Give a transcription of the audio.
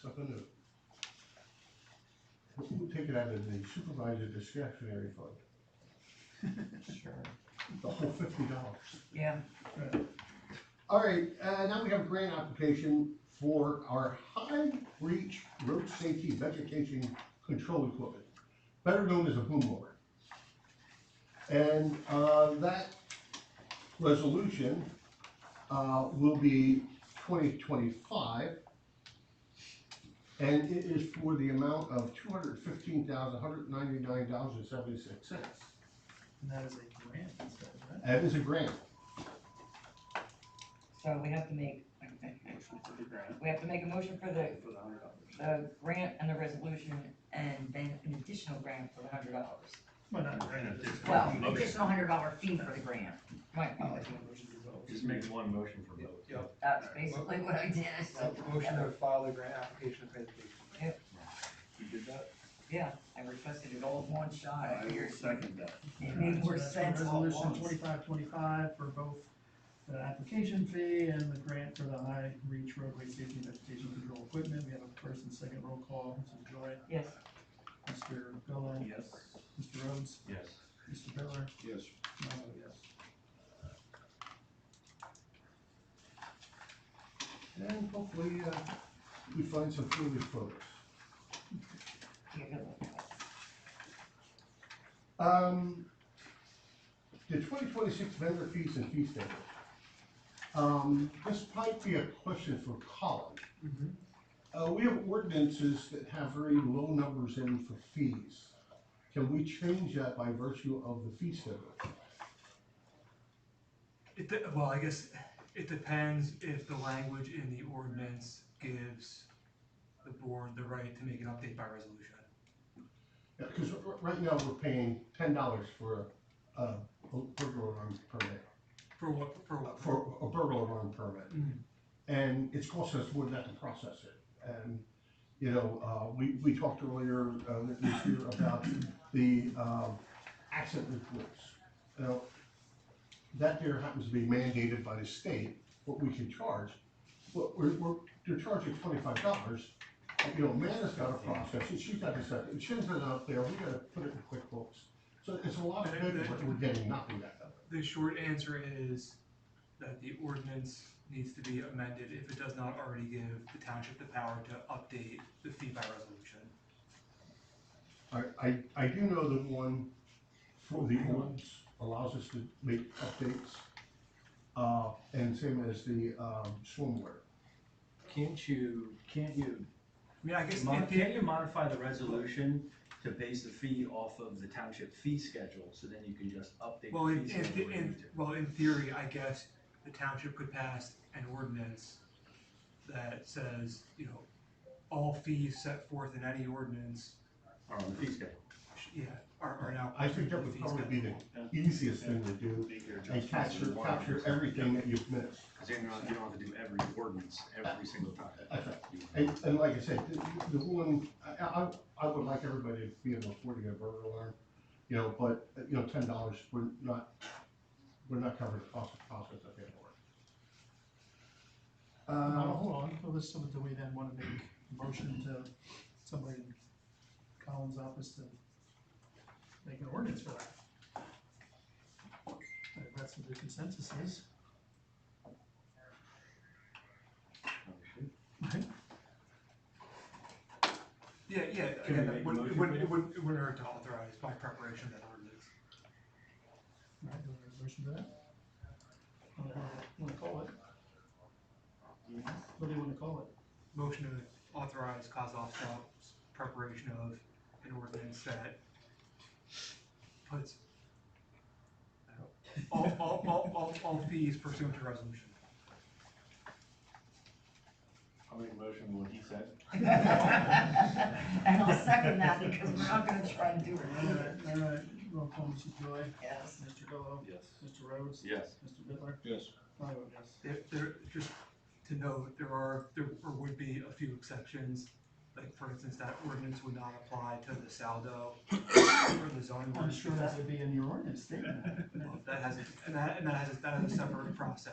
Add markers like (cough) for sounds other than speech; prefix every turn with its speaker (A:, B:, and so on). A: something new. We'll take it out of the supervisor discretionary fund,
B: Sure.
A: the whole fifty dollars.
B: Yeah.
A: All right, uh, now we have a grant application for our high reach road safety vegetation control equipment, better known as a boom mower. And, uh, that resolution, uh, will be twenty twenty-five. And it is for the amount of two hundred fifteen thousand, one hundred ninety-nine dollars and seventy-six cents.
C: And that is a grant, it says, right?
A: That is a grant.
B: So we have to make,
D: Motion for the grant
B: we have to make a motion for the,
D: for the hundred dollars.
B: the grant and the resolution, and then an additional grant for the hundred dollars.
C: Well, not grant,
D: Grant,
C: it's.
D: it's-
B: Well,
D: Motion.
B: additional hundred dollar fee for the grant. Right,
C: Oh, it's not motion to vote.
D: Just make one motion for both.
C: Yep.
B: that's basically what I did, so.
C: Uh, Motion to file the grant application and pay the fee.
B: Yep.
C: You did that?
B: Yeah, I requested it all in one shot, I
D: I will
B: figured
D: second that.
B: it made more
C: So that's
B: sense all at
C: Resolution
B: once.
C: twenty-five twenty-five for both the application fee and the grant for the high reach roadway safety and vegetation control equipment. We have a first and second roll call, Mr. Joy,
B: Yes,
C: Mr. Gallow,
D: Yes.
C: Mr. Rhodes,
D: Yes.
C: Mr. Miller,
D: Yes.
C: and I vote yes.
A: And hopefully, uh, we find some food for us.
B: you're good
D: (laughs)
B: with that.
A: Um, the twenty twenty-six vendor fees and fee schedule. Um, this might be a question for Colin. Uh, we have ordinances that have very low numbers in for fees. Can we change that by virtue of the fee schedule?
E: It, de- well, I guess it depends if the language in the ordinance gives the board the right to make an update by resolution.
A: Yeah, cause r- r- right now we're paying ten dollars for a, uh, a burglar alarm permit,
E: For what, for what?
A: for a burglar alarm permit.
E: Mm,
A: And it's cost us more than that to process it. And, you know, uh, we, we talked earlier, uh, this year about the, um, accident reports. Now, that there happens to be mandated by the state, what we can charge. But we're, we're, they're charging twenty-five dollars. You know, Amanda's gotta process it, she's gotta set it, Shin's been out there, we gotta put it in QuickBooks. So it's a lot of good, but we're getting nothing back of it.
E: The short answer is that the ordinance needs to be amended if it does not already give the township the power to update the fee by resolution.
A: I, I, I do know that one for the ones allows us to make updates, uh, and same as the, um, swimwear.
F: Can't you, can't you,
E: I mean, I guess,
F: mo-
E: in the-
F: can't you modify the resolution to base the fee off of the township fee schedule, so then you can just update
E: well,
F: the
E: in,
F: fee
E: in,
F: schedule? when you
E: in,
F: need to?
E: well, in theory, I guess the township could pass an ordinance that says, you know, all fees set forth in any ordinance
F: Or on the fee schedule.
E: Yeah, or, or now.
A: I think that would probably be the easiest thing to do, and capture, capture everything that you've missed.
D: Cause then you don't, you don't have to do every ordinance every single time.
A: Okay. And, and like I said, the, the one, I, I, I would like everybody to be able to afford to get a burglar alarm, you know, but, uh, you know, ten dollars, we're not, we're not covering the cost of process of that work.
C: Uh,
A: Uh,
C: hold on, well, this, do we then wanna make a motion to somebody in Colin's office to make an ordinance for that? If that's what the consensus is. Right?
E: Yeah, yeah,
F: Can we
E: again,
F: make
E: it
F: a motion
E: wouldn't, it wouldn't,
F: for
E: it wouldn't, it wouldn't hurt to authorize by preparation of that ordinance.
C: Alright, do we have a motion to that? What do you wanna- wanna call it? What do you wanna call it?
E: Motion to authorize Kozloff's office preparation of an ordinance that puts I don't know, all, all, all, all, all fees pursuant to resolution.
D: I'll make a motion with what he said.
B: And I'll second that because we're not gonna try and do it.
C: Alright, alright, roll call, Mr. Joy,
B: Yes.
C: Mr. Gallow,
D: Yes.
C: Mr. Rhodes,
D: Yes.
C: Mr. Bitler,
D: Yes.
C: I vote yes.
E: There, there, just to note, there are, there would be a few exceptions. Like, for instance, that ordinance would not apply to the Saldo or the zoning.
C: I'm sure that would be in your ordinance statement.
E: Well, That has, and that, and that has, that has a separate process.